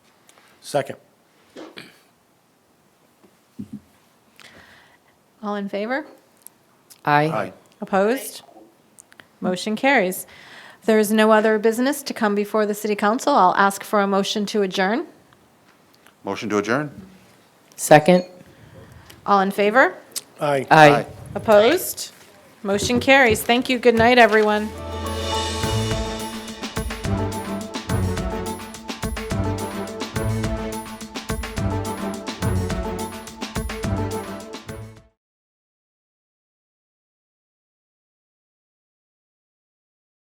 Second. All in favor? Aye. Opposed? Motion carries. If there is no other business to come before the city council, I'll ask for a motion to adjourn. Motion to adjourn? Second? All in favor? Aye. Aye. Opposed? Motion carries. Thank you. Good night, everyone.